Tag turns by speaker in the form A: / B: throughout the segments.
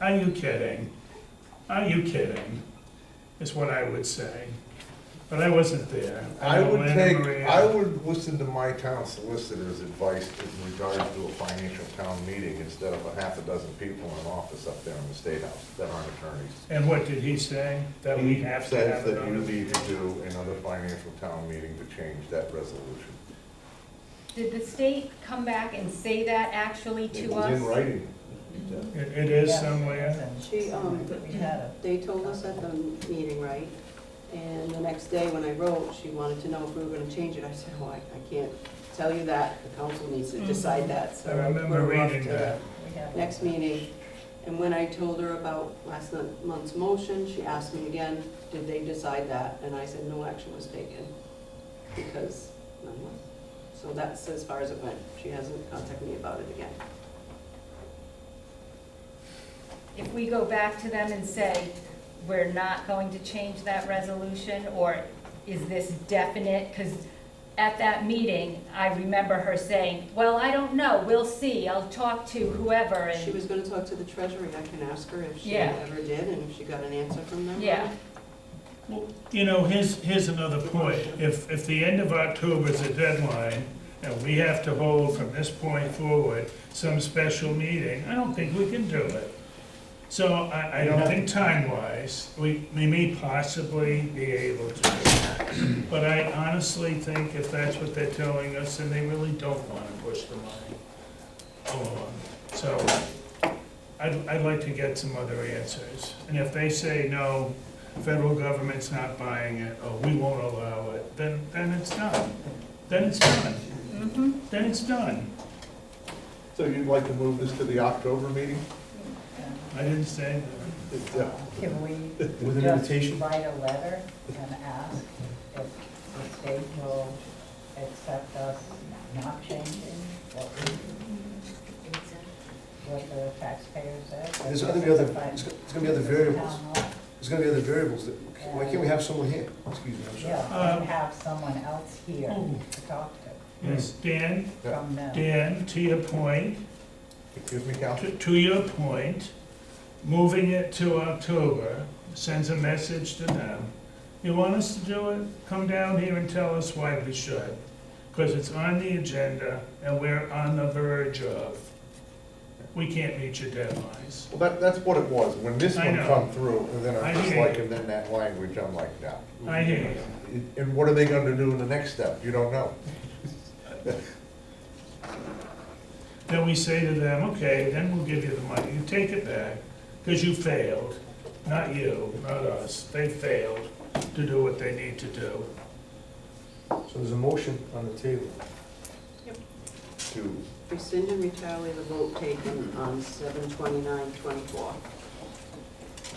A: Are you kidding? Are you kidding? Is what I would say. But I wasn't there.
B: I
A: know
B: would
A: Lana
B: take,
A: Maria-
B: I would listen to my town solicitor's advice in regards to a financial town meeting instead of a half a dozen people in an office up there in the State House that aren't attorneys.
A: And what did he say? That we have to
B: Says
A: have it
B: that you
A: on?
B: need to do another financial town meeting to change that resolution.
C: Did the state come back and say that actually
B: It
C: to
B: was in
C: us?
B: writing.
A: It it is somewhere.
D: She, um, They told us at the meeting, right? And the next day, when I wrote, she wanted to know if we were gonna change it. I said, well, I I can't tell you that. The council needs to decide that, so.
A: I remember
D: we're off
A: reading
D: to
A: that.
D: the Next meeting. And when I told her about last mon- month's motion, she asked me again, did they decide that? And I said, no action was taken, because none was. So that's as far as it went. She hasn't contacted me about it again.
C: If we go back to them and say, we're not going to change that resolution, or is this definite? Because at that meeting, I remember her saying, well, I don't know, we'll see, I'll talk to whoever,
D: She
C: and,
D: was gonna talk to the treasury, I can ask her if she
C: Yeah.
D: ever did, and if she got an answer from them.
C: yeah.
A: Well, You know, here's, here's another point. If, if the end of October is the deadline, and we have to hold from this point forward some special meeting, I don't think we can do it. So I, I don't think time-wise, we, we may possibly be able to do that. But I honestly think if that's what they're telling us, then they really don't want to push the money along. So I'd, I'd like to get some other answers. And if they say, no, federal government's not buying it, or we won't allow it, then, then it's done. Then it's done.
C: mm-hmm.
A: Then it's done.
B: So you'd like to move this to the October meeting?
A: I didn't say
B: It's, uh,
E: Can we
F: With an
E: just
F: invitation?
E: write a letter and ask if the state will accept us not changing what we, what the taxpayer said?
F: There's gonna be other, there's gonna there's gonna be other variables. There's gonna be other variables. that- Why can't we have someone here? Excuse me, I'm sorry.
E: Yeah, and have someone else here
A: Oh.
E: to talk to
A: Yes, Dan,
E: from them.
A: Dan, to your point,
B: Excuse me, Cal?
A: to, to your point, moving it to October sends a message to them. You want us to do it? Come down here and tell us why we should. Because it's on the agenda and we're on the verge of. We can't meet your deadlines.
B: Well, that, that's what it was. When this
A: I
B: one
A: know.
B: come through, and then
A: I
B: I'm just
A: hear
B: like,
A: you.
B: and then that language, I'm like, no.
A: I hear you.
B: And what are they gonna do in the next step? You don't know.
A: then we say to them, okay, then we'll give you the money, you take it back, because you failed, not you, not us, they failed to do what they need to do.
F: So there's a motion on the table.
B: To,
D: Rescind and retaliate the vote taken on seven twenty-nine twenty-four.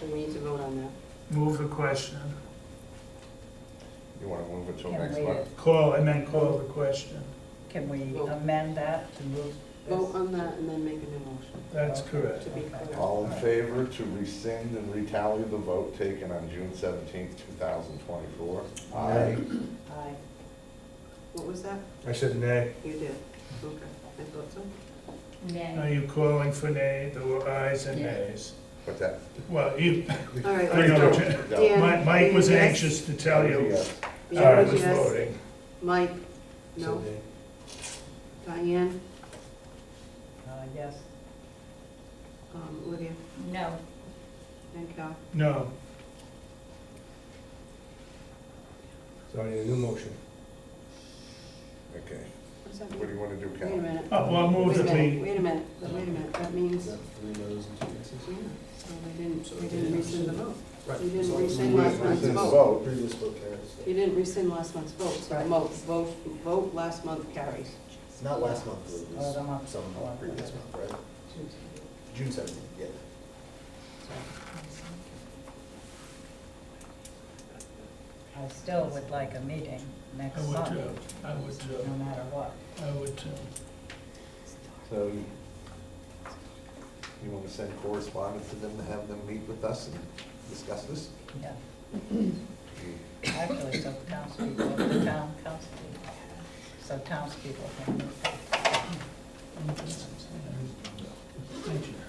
D: We need to vote on that.
A: Move the question,
B: you wanna move it till
E: Can
B: next
E: we,
B: month?
A: call, and then call the question,
E: can we amend that to move
D: Vote
E: this?
D: on that and then make a new motion,
A: that's correct.
D: to be clear.
B: All in favor to rescind and retaliate the vote taken on June seventeenth, two thousand twenty-four?
F: Aye.
E: Aye.
D: What was that?
F: I said nay.
D: You did. Okay, I thought so.
A: Are
C: Nay.
A: you calling for nay, there were ayes and nays?
B: What's that?
A: Well, you,
D: All right,
A: I know,
D: let's
A: Jan-
D: go.
B: No.
D: Dan,
A: Mike, Mike was
D: yes.
A: anxious to tell you
B: Yes.
A: how I
D: Dan was
A: was
D: yes.
A: voting.
D: Mike,
F: I
D: no.
F: said nay.
D: Diane,
E: Uh, yes,
D: um, Olivia,
C: No.
D: and Cal.
A: No,
F: So I need a new motion.
B: Okay,
D: What's that
B: what do
D: mean?
B: you wanna do,
D: Wait a
B: Cal?
D: minute.
A: oh, well, I'll move
D: Wait a
A: that
D: minute,
A: we,
D: wait a minute, wait a minute, that means,
F: three no's and two yeses?
D: yeah, so they didn't, they didn't rescind the vote.
F: Right.
D: You didn't
F: So
D: rescind
F: we-
D: last month's
B: Rescind the
D: vote.
B: vote.
F: Previous vote carries.
D: You didn't rescind last month's vote, so
E: Right.
D: vote, vote, vote last month carries.
F: Not last month, it
E: Oh, the month
F: some
E: before.
F: previous month, right? June seventeenth, yeah.
E: I still would like a meeting next
A: I would
E: month,
A: too, I would
E: no
A: too,
E: matter what.
A: I would too.
B: So you, you wanna send correspondence to them to have them meet with us and discuss this?
E: Yeah, actually, so townspeople, the town council, so townspeople can.
A: Thank you.